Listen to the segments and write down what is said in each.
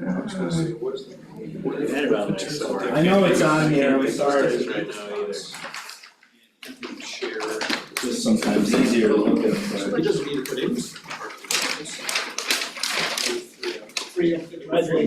was gonna say, what is the? what is the- Right around there somewhere. I know it's on here, I'm sorry. It's right now either. Share. Just sometimes easier to look at, but It doesn't need to put in.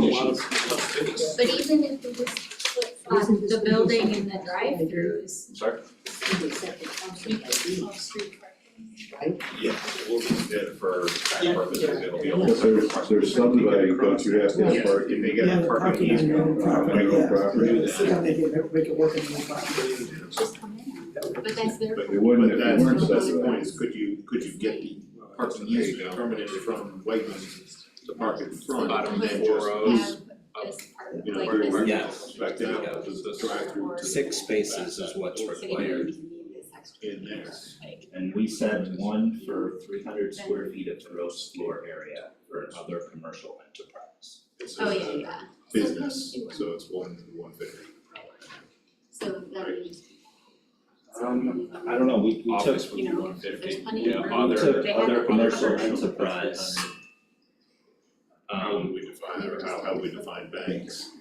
But even if it was flip flop, the building and the drive-through is Sorry? complete off-street parking. Yeah, we'll just do it for tax Yeah, purposes, it'll be. But There's, there's some value, but you have to Yeah, have If parking. they get Yeah, a the permit. parking is you your know, own property, you know, Your own property. do See that. how they did it, make it work in the property. Just come in, but that's their. But they wouldn't But if that's, they weren't that's the point, subsidized. is could you, could you get the parking There you easement go. permitted from Wegmans to park in front? Bottom and then left. just- Have this part, You know, like where this. where Yeah. back down, the the drive-through to the- Six spaces is what's So you required. need this extra In there. like- And we said one for three hundred square feet of gross floor area for another commercial enterprise. It's just Oh, a yeah, yeah, Business, so it's one, one fifty. so that would just. um, I don't know, we we took Office would be You know, one fifty. there's plenty of Yeah, room. other- took They have other it. commercial Other commercial enterprise. How would Um, we define, or how, how we define banks?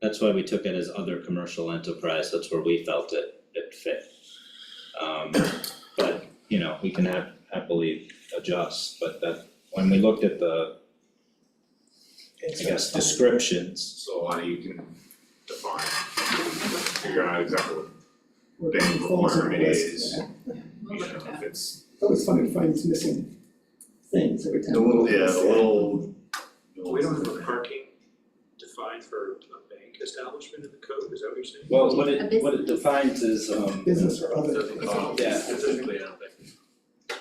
that's why we took it as other commercial enterprise, that's where we felt it it fit. Um, but, you know, we can hap- happily adjust, but that, when we looked at the, I guess, descriptions, So how do you can define, figure out exactly Well, what bank it falls in requirement place. is, you know, if it's. It's always funny to find these missing things every time. Yeah, the little. We don't have a parking defined for a bank establishment in the code, is that what you're saying? Well, what A it, business. what it defines is, um, Business or other. Um, Oh, Yeah. Specifically, I don't think.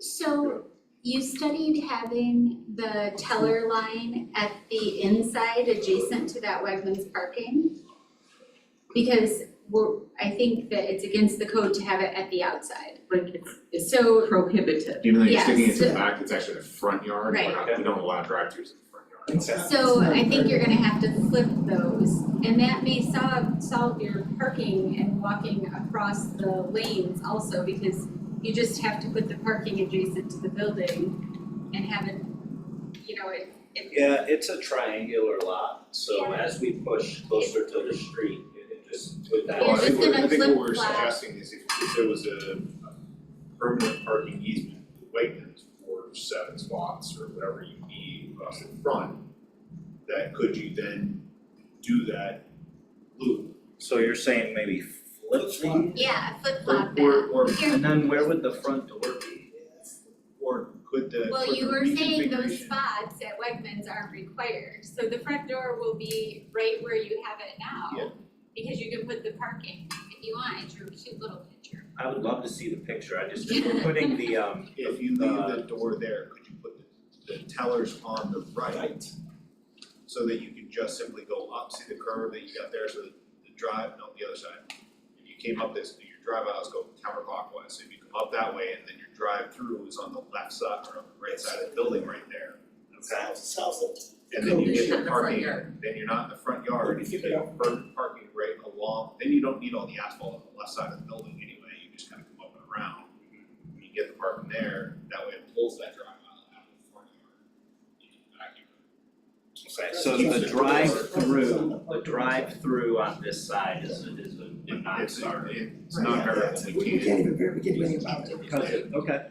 So you studied having the teller line at the inside adjacent to that Wegmans parking? Because we're, I think that it's against the code to have it at the outside. like it's it's So, prohibited. Even though you're Yes. sticking it to the back, it's actually the front yard, we're Right. not, we don't allow drive-throughs in the front yard. so I think you're gonna have to flip those. And that may solve, solve your parking and walking across the lanes also because you just have to put the parking adjacent to the building and have it, you know, it, it yeah, it's a triangular lot, so Yeah. as we push closer to the street, it it just, with that. Yeah, Well, I think just what, I gonna think what we're flip flop. suggesting is if, if there was a a permanent parking easement, Wegmans for seven spots or whatever you need across the front, that could you then do that loop? So you're saying maybe flip flop? Yeah, flip Or, flop or, that. or, Here. And then where would the front door be? or could the, Well, could you the were saying those reconfiguration- spots at Wegmans aren't required, so the front door will be right where you have it Yeah. now. Because you can put the parking if you want, it's your cute little picture. I would love to see the picture, I just, if we're putting the um, If you leave the door there, could you put the, the tellers on the right? So that you could just simply go up, see the curve that you got there, so the the drive, no, the other side. If you came up this, your drive aisles go counterclockwise, so if you come up that way and then your drive-through is on the left side or on the right side of the building right there. South, south of. And then you Cool. get your In the front parking, yard. then you're not in the front yard, If you you get get per- parking right along, then you don't need all the asphalt on the left side of the building anyway, you just kind of come up and around. When you get the parking there, that way it pulls that drive aisle out of the front yard. You can vacuum it. so the drive-through, the drive-through on this side is a, is a It- non it's starter. it's not Right, yeah, variable, yeah. we We can't, can't even, ver- we can't do anything about it. okay.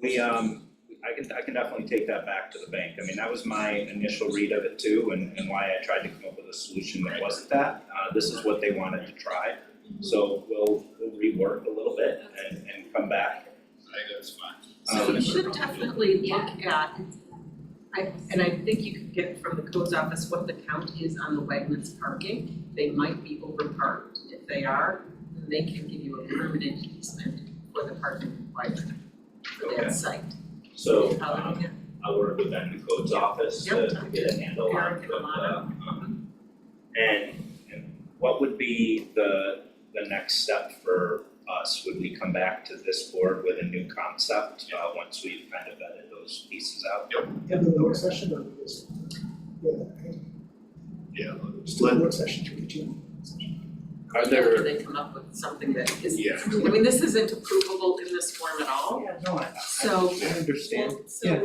We, um, I can, I can definitely take that back to the bank, I mean, that was my initial read of it too, and, and why I tried to come up with a solution that wasn't that. Uh, this is what they wanted to try, so we'll, we'll rework a little bit and, and come back. I think that's fine. So Um, you should definitely look Yeah. at, I, and I think you could get from the codes office what the count is on the Wegmans parking. They might be overparked. If they are, then they can give you a permanent easement for the parking required for Okay. that site. So, How um, would you- I'll work with them in the codes office to to get a handle on Yep. what, uh, um, and, and what would be the, the next step for us? Would we come back to this board with a new concept, uh, once we've kind of vetted those pieces out? Yeah, the work session or this? Yeah, Yeah, just do the work session, should we do? Are after there, they come up with something that is, Yeah, I I mean, Oh, mean, this isn't approvable in this form at all, Yeah, no, I, I, so. I understand So